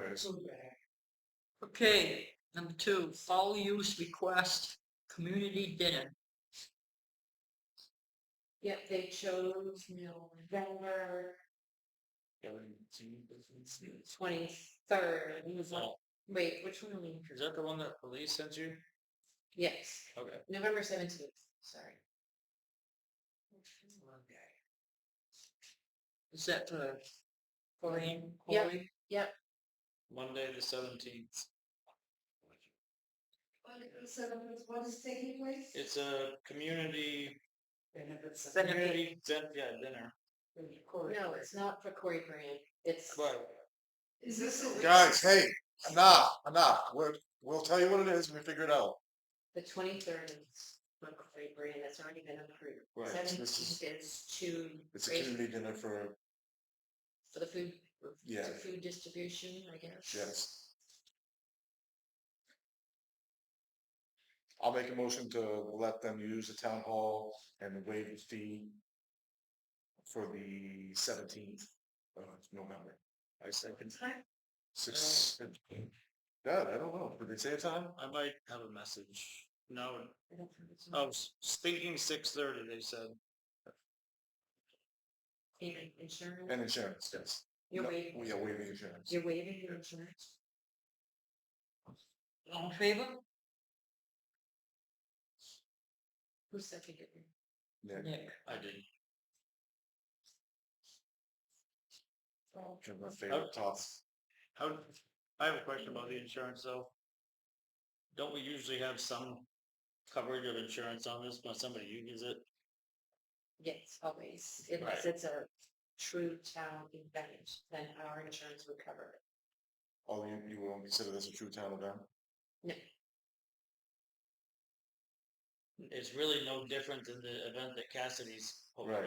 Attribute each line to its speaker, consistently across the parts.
Speaker 1: include that.
Speaker 2: Okay, number two, fall use request, community dinner.
Speaker 3: Yep, they chose November twenty-third, it was
Speaker 4: Oh.
Speaker 3: like, wait, which one are we?
Speaker 1: Is that the one that police sent you?
Speaker 3: Yes,
Speaker 1: Okay.
Speaker 3: November seventeenth, sorry.
Speaker 2: Is that the Colleen?
Speaker 3: Yep.
Speaker 2: Colleen?
Speaker 1: Monday the seventeenth.
Speaker 3: So what is taking place?
Speaker 1: It's a community,
Speaker 2: Benefit.
Speaker 1: community, din- yeah, dinner.
Speaker 3: No, it's not for Corey Grant, it's,
Speaker 1: But
Speaker 3: is this
Speaker 4: Guys, hey, enough, enough. We're, we'll tell you what it is when we figure it out.
Speaker 3: the twenty-third is for Corey Grant, that's already been approved.
Speaker 4: Right, so this
Speaker 3: Seventeenth is to,
Speaker 4: It's a
Speaker 3: Great.
Speaker 4: community dinner for,
Speaker 3: for the food,
Speaker 4: yeah,
Speaker 3: to food distribution, I guess.
Speaker 4: yes. I'll make a motion to let them use the town hall and waive the fee for the seventeenth of November.
Speaker 1: I second.
Speaker 4: Six, God, I don't know. Did they say a time?
Speaker 1: I might have a message. No,
Speaker 4: Oh,
Speaker 1: oh, I was thinking six thirty, they said.
Speaker 3: Payment insurance,
Speaker 4: And insurance, yes.
Speaker 3: you're
Speaker 4: No,
Speaker 3: waiving,
Speaker 4: We are waiving insurance.
Speaker 3: you're waiving your insurance?
Speaker 2: All in favor?
Speaker 3: Who seconded it?
Speaker 4: Yeah.
Speaker 2: Nick.
Speaker 1: I did.
Speaker 4: One of my
Speaker 1: Oh.
Speaker 4: favorite topics.
Speaker 1: How, I have a question about the insurance though. Don't we usually have some coverage of insurance on this when somebody uses it?
Speaker 3: Yes, always, unless it's a true town event, then our insurance would cover it.
Speaker 4: Oh, you, you won't consider this a true town event?
Speaker 1: It's really no different than the event that Cassidy's hosting.
Speaker 4: Right.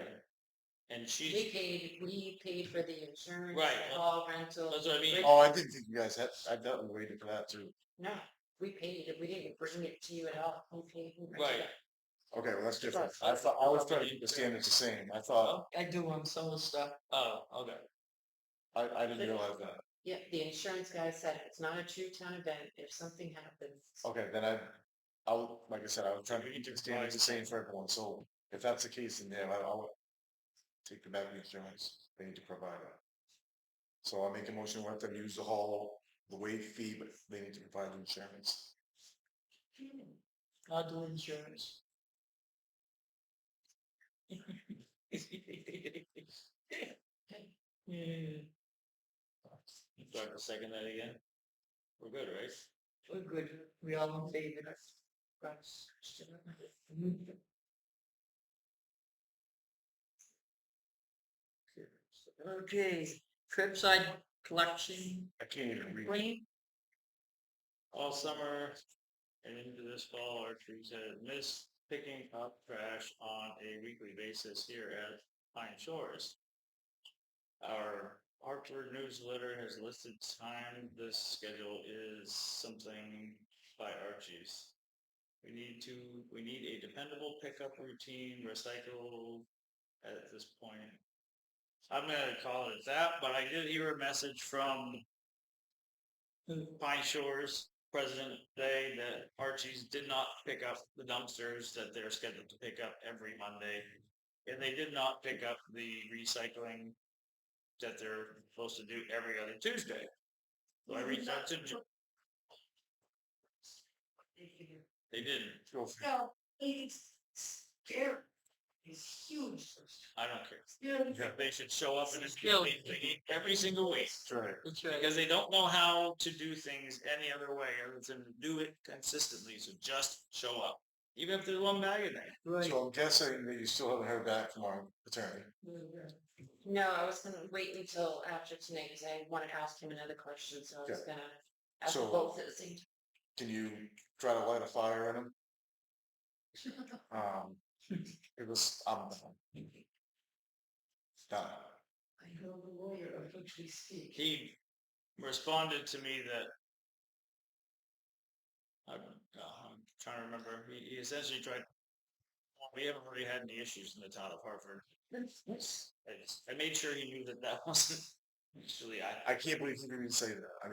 Speaker 1: And
Speaker 3: We
Speaker 1: she's,
Speaker 3: paid, we paid for the insurance,
Speaker 1: Right, uh,
Speaker 3: all rental,
Speaker 1: that's what I mean.
Speaker 4: Oh, I didn't think you guys had, I thought we waited for that too.
Speaker 3: no, we paid it, we didn't bring it to you at all, we paid. we rented
Speaker 1: Right.
Speaker 3: it.
Speaker 4: Okay, well, that's different.
Speaker 1: Right.
Speaker 4: I thought, I was trying to keep the standards the same. I thought,
Speaker 2: I do on some of the stuff.
Speaker 1: Oh, okay.
Speaker 4: I, I didn't realize that.
Speaker 3: Yeah, the insurance guy said it's not a true town event, if something happens,
Speaker 4: Okay, then I, I, was- like I said, I was trying to
Speaker 1: We
Speaker 4: keep the
Speaker 1: need to
Speaker 4: standards the same
Speaker 1: provide-
Speaker 4: for everyone, so if that's the case, then yeah, I, I'll take the back insurance. They need to provide it. So I make a motion, let them use the hall, the waive fee, but they need to provide the insurance.
Speaker 2: I'll do insurance. Yeah,
Speaker 1: Do I have to second that again? We're good, right?
Speaker 2: we're good. We all in favor. That's- Okay, curbside collection.
Speaker 4: I can't even read.
Speaker 2: Green.
Speaker 1: All summer and into this fall, our trees have missed picking up trash on a weekly basis here at Pine Shores. Our Hartford newsletter has listed time. This schedule is something by Archie's. We need to, we need a dependable pickup routine, recycle at this point. I'm gonna call it that, but I did hear a message from Pine Shores president today that Archie's did not pick up the dumpsters that they're scheduled to pick up every Monday. And they did not pick up the recycling that they're supposed to do every other Tuesday. So I reached out to, Jo- they didn't.
Speaker 4: Go for it.
Speaker 3: No, it's scary. It's huge.
Speaker 1: I don't care.
Speaker 3: Scary.
Speaker 4: Yeah,
Speaker 1: They should show up and just
Speaker 2: Yeah.
Speaker 1: they eat every single week.
Speaker 4: that's right.
Speaker 2: That's right.
Speaker 1: Because they don't know how to do things any other way other than do it consistently. So just show up. Even if there's one bag in there.
Speaker 2: Right.
Speaker 4: So I'm guessing that you still haven't heard back from our attorney.
Speaker 3: No, I was gonna wait until after tonight, cause I wanna ask him another question, so I was gonna ask
Speaker 4: So-
Speaker 3: both at the same
Speaker 4: Can you try to light a fire in him?
Speaker 3: time.
Speaker 4: Um, it was, um, done.
Speaker 3: I know the lawyer of which we speak.
Speaker 1: he responded to me that I don't, uh, I'm trying to remember. He, he essentially tried. We haven't really had any issues in the town of Hartford. I, just, I made sure he knew that that wasn't actually I.
Speaker 4: I can't believe he didn't even say that. I mean.